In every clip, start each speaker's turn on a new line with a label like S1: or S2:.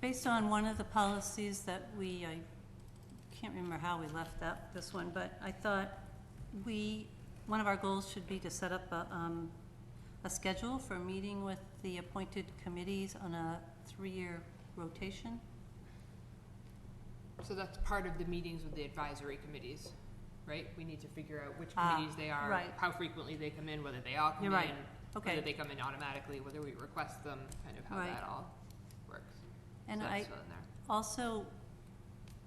S1: Based on one of the policies that we, I can't remember how we left that, this one, but I thought we, one of our goals should be to set up a, um, a schedule for meeting with the appointed committees on a three-year rotation.
S2: So that's part of the meetings with the advisory committees, right? We need to figure out which
S1: Ah,
S2: committees they are,
S1: right.
S2: how frequently they come in, whether they all come
S1: You're
S2: in,
S1: right.
S2: whether
S1: Okay.
S2: they come in automatically, whether we request them, kind of how
S1: Right.
S2: that all works.
S1: And
S2: So
S1: I
S2: that's still in there.
S1: also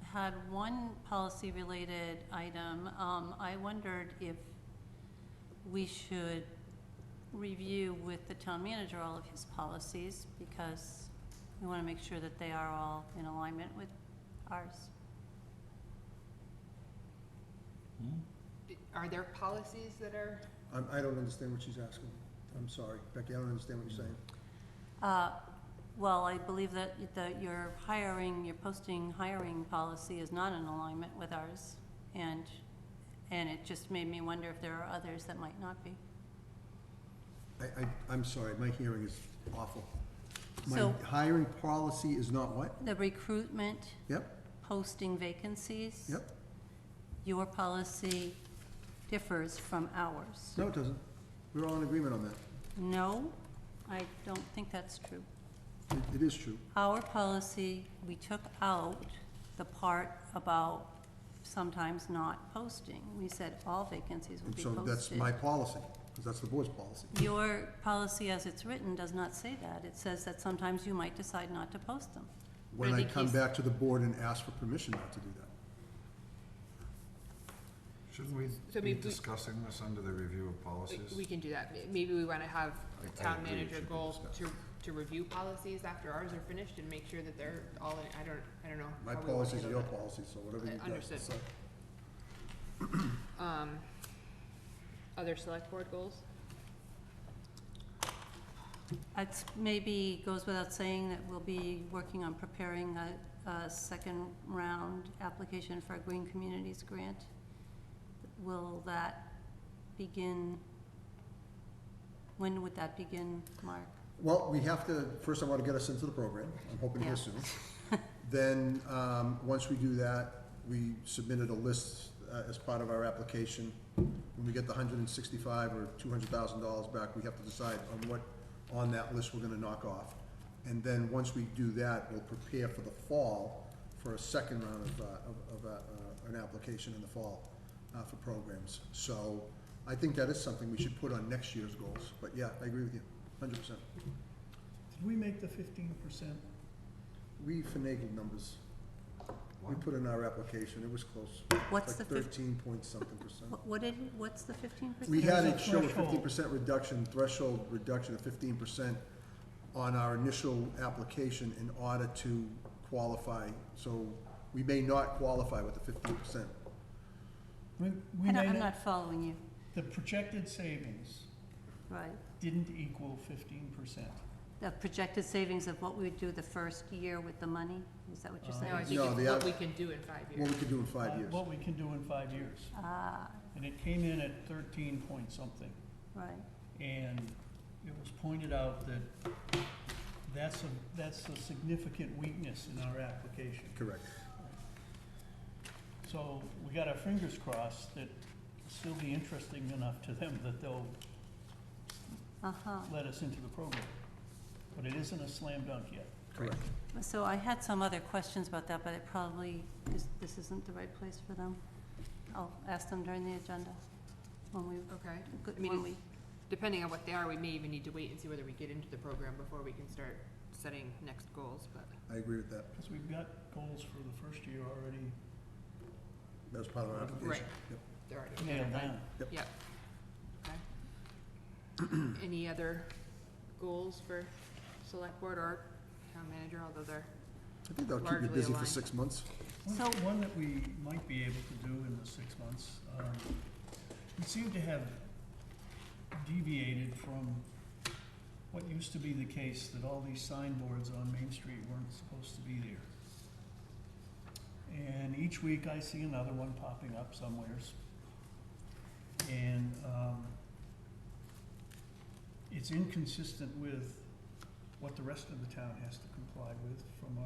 S1: had one policy-related item. Um, I wondered if we should review with the town manager all of his policies because we want to make sure that they are all in alignment with ours.
S2: Are there policies that are,
S3: I'm, I don't understand what she's asking. I'm sorry, Becky, I don't understand what you're saying.
S1: Uh, Well, I believe that, that your hiring, your posting hiring policy is not in alignment with ours. And, and it just made me wonder if there are others that might not be.
S3: I, I, I'm sorry, my hearing is awful. My
S1: So-
S3: hiring policy is not what?
S1: The recruitment,
S3: Yep,
S1: posting vacancies.
S3: yep.
S1: Your policy differs from ours.
S3: No, it doesn't. We're all in agreement on that.
S1: No, I don't think that's true.
S3: It, it is true.
S1: Our policy, we took out the part about sometimes not posting. We said all vacancies will
S3: And
S1: be
S3: so
S1: posted.
S3: that's my policy, because that's the board's policy.
S1: Your policy as it's written does not say that. It says that sometimes you might decide not to post them.
S3: When I
S2: Randy
S3: come
S2: Keith-
S3: back to the board and ask for permission not to do that.
S4: Shouldn't we
S2: So
S4: be
S2: we- we-
S4: discussing this under the review of
S2: we-
S4: policies?
S2: we can do that. May- Maybe we wanna have
S4: I-
S2: a
S4: I
S2: town
S4: agree, it
S2: manager
S4: should be
S2: goal to,
S4: discussed.
S2: to review policies after ours are finished and make sure that they're all, in- I don't, I don't know.
S3: My
S2: how we wanna
S3: policies are
S2: handle
S3: your
S2: that.
S3: policies, so whatever you guys
S2: Understood.
S3: decide.
S2: Um, other select board goals?
S1: It maybe goes without saying that we'll be working on preparing a, a second round application for a Green Communities grant. Will that begin, when would that begin, Mark?
S3: Well, we have to, first I want to get us into the program, I'm hoping
S1: Yeah.
S3: here soon. Then, um, once we do that, we submitted a list uh, as part of our application. When we get the hundred and sixty-five or two hundred thousand dollars back, we have to decide on what, on that list we're gonna knock off. And then, once we do that, we'll prepare for the fall for a second round of, uh, of, of, uh, uh, an application in the fall uh, for programs. So, I think that is something we should put on next year's goals, but yeah, I agree with you, hundred percent.
S5: Did we make the fifteen percent?
S3: We finagled numbers. We
S4: What?
S3: put in our application, it was close,
S1: What's the
S3: like
S1: fif,
S3: thirteen point something percent.
S1: what- what did, what's the fifteen percent?
S3: We had
S5: There's
S3: it
S5: a
S3: show a
S5: threshold.
S3: fifty percent reduction, threshold reduction of fifteen percent on our initial application in order to qualify, so we may not qualify with the fifteen percent.
S5: We, we
S1: I don't,
S5: made
S1: I'm
S5: it,
S1: not following you,
S5: the projected savings
S1: right.
S5: didn't equal fifteen percent.
S1: The projected savings of what we would do the first year with the money, is that what you're
S5: Uh,
S1: saying?
S2: No, I think
S3: No, the
S2: it's what
S3: av-
S2: we can do in five
S3: What
S2: years.
S3: we could do in five years.
S5: What we can do in five years.
S1: Ah,
S5: And it came in at thirteen point something.
S1: right.
S5: And it was pointed out that that's a, that's a significant weakness in our application.
S3: Correct.
S5: So we got our fingers crossed that it's still be interesting enough to them that they'll
S1: Uh-huh.
S5: let us into the program. But it isn't a slam dunk yet.
S3: Correct.
S1: So I had some other questions about that, but it probably, is- this isn't the right place for them. I'll ask them during the agenda, when we,
S2: Okay. I mean,
S1: when
S2: it's-
S1: we,
S2: depending on what they are, we may even need to wait and see whether we get into the program before we can start setting next goals, but.
S3: I agree with that,
S5: Because we've got goals for the first year already
S3: that was part of our application. Yep.
S2: They're already
S5: nailed
S2: identified.
S5: down.
S2: Yep. Okay. Any other goals for select board or town manager, although they're,
S3: I think that'll keep you
S2: Largely
S3: busy for
S2: aligned.
S3: six months.
S5: One-
S1: So-
S5: One that we might be able to do in the six months, um, we seem to have deviated from what used to be the case, that all these signboards on Main Street weren't supposed to be there. And each week I see another one popping up somewheres. And, um, it's inconsistent with what the rest of the town has to comply with from a